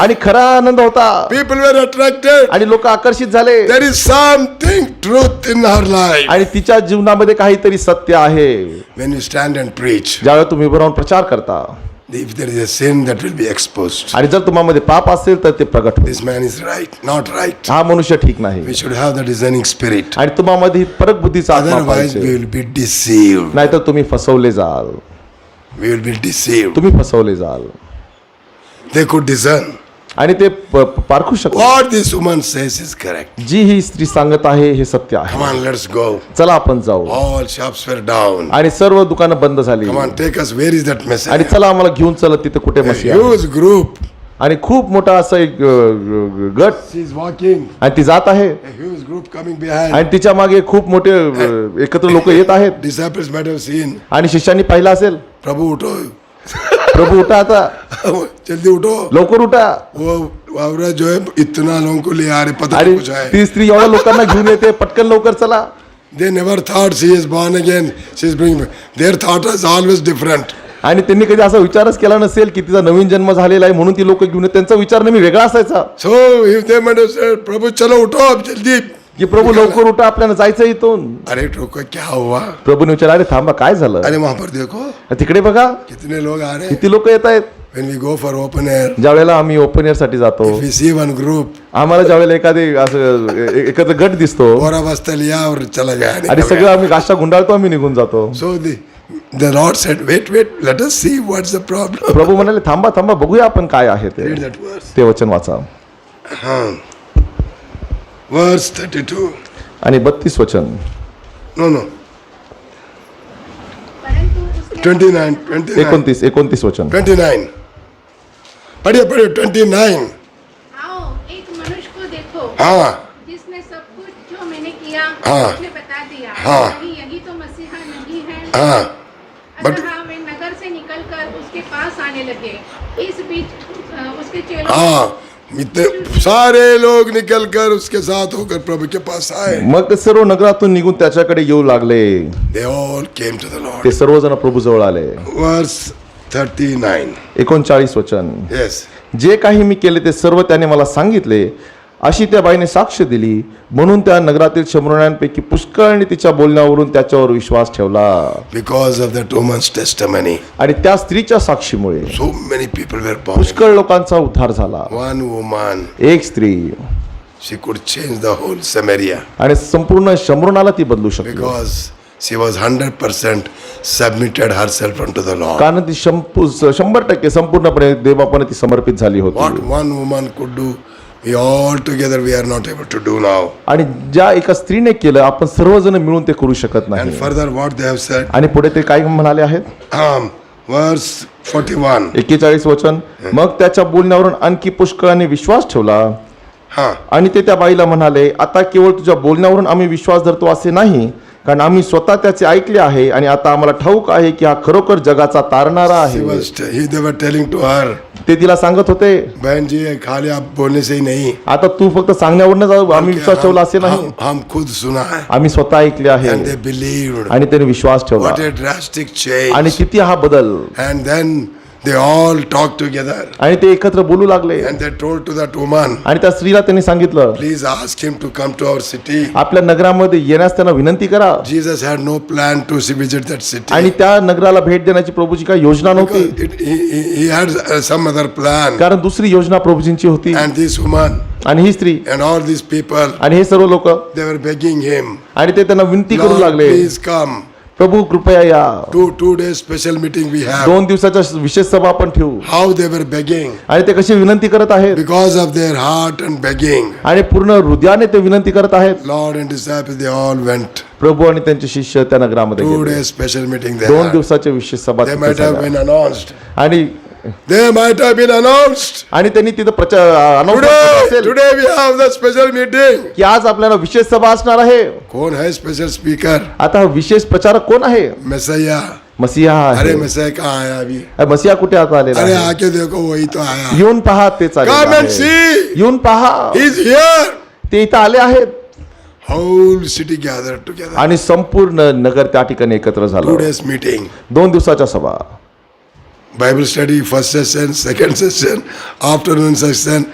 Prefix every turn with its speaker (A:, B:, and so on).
A: आणि खरा आनंद होता
B: People were attracted.
A: आणि लोक आकर्षित झाले
B: There is something truth in our life.
A: आणि तिच्या जीवनामध्ये काहीतरी सत्य आहे
B: When you stand and preach,
A: ज्यावेळेला तुम्ही उभं राहून प्रचार करता
B: if there is a sin that will be exposed,
A: आणि जर तुम्हामध्ये पाप असेल तर ते प्रगट होईल
B: this man is right, not right.
A: हा मनुष्य ठीक नाही
B: We should have the discerning spirit.
A: आणि तुम्हामध्ये ही परक बुद्धीचा आत्मा
B: Otherwise, we
A: पाहिजे
B: will be deceived.
A: नाहीतर तुम्ही फसवले जाल
B: We will be deceived.
A: तुम्ही फसवले जाल
B: They could discern.
A: आणि ते प- प- पारखू शकतो
B: What this woman says is correct.
A: जी ही स्त्री सांगत आहे हे सत्य
B: Come
A: आहे
B: on, let's go.
A: चला आपण जाऊ
B: All shops were down.
A: आणि सर्व दुकानं बंद झाली
B: Come on, take us. Where is that
A: आणि
B: message?
A: चला आम्हाला घेऊन चलत तिथे कुठे
B: A
A: मशी आहे.
B: huge group.
A: आणि खूप मोठा असा एक अ, ग- ग- गट
B: She's walking.
A: आणि ती जात आहे
B: A huge group coming behind.
A: आणि तिच्या मागे खूप मोठे अ, एकत्र लोक येत आहेत
B: Disciples might have seen.
A: आणि शिष्यांनी पाहिलं असेल
B: Prabhu, utho.
A: प्रभू उठा आता
B: जल्दी उठो
A: लवकर उठा
B: वो वावरा जो है इतना लोगों को ले आ रहे पता
A: आणि
B: नहीं कुछ है
A: ती स्त्री एवढ्या लोकांना घेऊन येते पटकन लवकर चला
B: they never thought she is born again she is bring their thought is always different
A: आणि त्यांनी कधी असा विचारच केला नसेल की तिचा नवीन जन्म झालेला आहे म्हणून ती लोक घेऊन येत. त्यांचा विचार नेहमी वेगळा असायचा
B: सो इफ दे मैंने प्रभु चलो उठो अब जल्दी
A: की प्रभू लवकर उठा आपल्याला जायचं आहे इथून
B: अरे ठोको क्या हुआ
A: प्रभूने विचार अरे थांबा काय झालं
B: अरे वहां पर देखो
A: तिकडे बघा
B: कितने लोग आ रहे हैं
A: किती लोक येत आहेत
B: when we go for open air
A: ज्या वेळेला आम्ही ओपन एअर साठी जातो
B: वी सी वन ग्रुप
A: आम्हाला ज्या वेळेला एखादी असं ए- ए- एकत्र गट दिसतो
B: और अवस्था लिया और चला
A: आणि सगळं
B: गया
A: आम्ही गाशा गुंडाळतो आम्ही निघून जातो
B: so the Lord said wait wait let us see what's the problem
A: प्रभू म्हणाले थांबा थांबा बघूया आपण काय आहे ते
B: रीड दैट वर्स
A: ते वचन वाचा
B: हाँ, वर्स 32
A: आणि बत्तीस वचन
B: नो नो
C: परंतु उसने
B: ट्वेंटी नाइन ट्वेंटी नाइन
A: एकोणतीस एकोणतीस वचन
B: ट्वेंटी नाइन पढ़िए पढ़िए ट्वेंटी नाइन
C: आओ एक मनुष्य को देखो
B: हाँ
C: जिसने सब कुछ जो मैंने किया
B: हाँ।
C: उसने बता दिया
B: हाँ।
C: नहीं यही तो मसीहा नहीं है
B: हाँ but-
C: अतः वे नगर से निकलकर उसके पास आने लगे इस बीच अ, उसके चेलों
B: हाँ इतने सारे लोग निकल कर उसके साथ होकर प्रभु के पास आए
A: मग ते सर्व नगरातून निघून त्याच्याकडे येऊ लागले
B: they all came to the
A: ते
B: लॉर्ड
A: सर्वजण प्रभू जवळ आले
B: वर्स थर्टी नाइन
A: एकोणचाळीस वचन
B: यस
A: जे काही मी केले ते सर्व त्याने मला सांगितले अशी त्या बाईने साक्ष दिली म्हणून त्या नगरातील शंभरण्यांपैकी पुष्कळने तिच्या बोलण्यावरून त्याच्यावर विश्वास ठेवला
B: because of that woman's testimony
A: आणि त्या स्त्रीच्या साक्षीमुळे
B: so many people were posh
A: पुष्कळ लोकांचा उद्धार झाला
B: वन वुमन
A: एक स्त्री
B: she could change the whole Samaria
A: आणि संपूर्ण शंभरणाला ती बदलू शकली
B: because she was hundred percent submitted herself to the Lord
A: कारण ती शंपू- शंभर टक्के संपूर्णपणे देवापणे ती समर्पित झाली
B: What
A: होती
B: one woman could do, we all together we are not able to do now.
A: आणि ज्या एका स्त्रीने केलं आपण सर्वजण मिळून ते करू शकत
B: And
A: नाही
B: further, what they have said,
A: आणि पुढे ते काय म्हणाले आहेत
B: um, verse 41.
A: एकेचाळीस वचन मग त्याच्या बोलण्यावरून आणखी पुष्कळाने विश्वास ठेवला
B: Huh.
A: आणि ते त्या बाईला म्हणाले आता केवळ तुझ्या बोलण्यावरून आम्ही विश्वास धरतो असे नाही कारण आम्ही स्वतः त्याचे ऐकले आहे आणि आता आम्हाला ठाऊक आहे की हा खरोखर जगाचा तारणारा
B: He
A: आहे
B: was, he, they were telling to her,
A: ते तिला सांगत होते
B: बहन जी ये खाली आप बोलने से ही नहीं
A: आता तू फक्त सांगण्यावरूनच आम्ही विश्वास ठेवला असे
B: हम,
A: नाही
B: हम, हम खुद सुना है
A: आम्ही स्वतः ऐकले
B: and
A: आहे
B: they believed.
A: आणि त्याने विश्वास ठेवला
B: What a drastic
A: आणि
B: change.
A: किती हा बदल
B: And then they all talked together
A: आणि ते एकत्र बोलू लागले
B: and they told to that woman,
A: आणि त्या स्त्रीला त्यांनी सांगितलं
B: please ask him to come to our city.
A: आपल्या नगरामध्ये येण्यास त्यांना विनंती करा
B: Jesus had no plan to visit that city.
A: आणि त्या नगराला भेट देण्याची प्रभूची काही योजना नव्हती
B: Because it, he, he- he had uh, some other plan.
A: कारण दुसरी योजना प्रभूजींची होती
B: And this woman
A: आणि ही स्त्री
B: and all these people,
A: आणि हे सर्व लोक
B: they were begging him,
A: आणि ते त्यांना विनंती करू
B: Lord,
A: लागले
B: please come.
A: प्रभू कृपया या
B: Two, two days special meeting we have.
A: दोन दिवसाच्या विशेष सभा आपण ठेवू
B: How they were begging.
A: आणि ते कशी विनंती करत आहेत
B: Because of their heart and begging,
A: आणि पूर्ण हृदयाने ते विनंती करत आहेत
B: Lord and disciples, they all went.
A: प्रभू आणि त्यांचे शिष्य त्या नगरामध्ये
B: Two
A: गेले
B: days special meeting they
A: दोन
B: had.
A: दिवसाच्या विशेष सभा
B: They
A: तिथे
B: might have
A: झाल्या.
B: been announced.
A: आणि
B: They might have been announced.
A: आणि त्यांनी तिथं प्रचार announcement
B: Today,
A: केलं असेल
B: today we have the special meeting.
A: की आज आपल्याला विशेष सभा असणार आहे
B: कौन है special speaker?
A: आता हा विशेष प्रचारक कोण आहे
B: Messiah.
A: मसीहा हा
B: अरे
A: आहे
B: मसीह कहाँ आया अभी?
A: मसीहा कुठे आता आलेला
B: अरे
A: आहे
B: आके देखो वही तो आया
A: येऊन पहा ते
B: Come and
A: चालेल
B: see.
A: येऊन पहा
B: He's here.
A: ते इथं आले आहेत
B: Whole city gathered together.
A: आणि संपूर्ण नगर त्या ठिकाणी एकत्र
B: Two
A: झालं
B: days meeting.
A: दोन दिवसाच्या सभा
B: Bible study, first session, second session, afternoon session,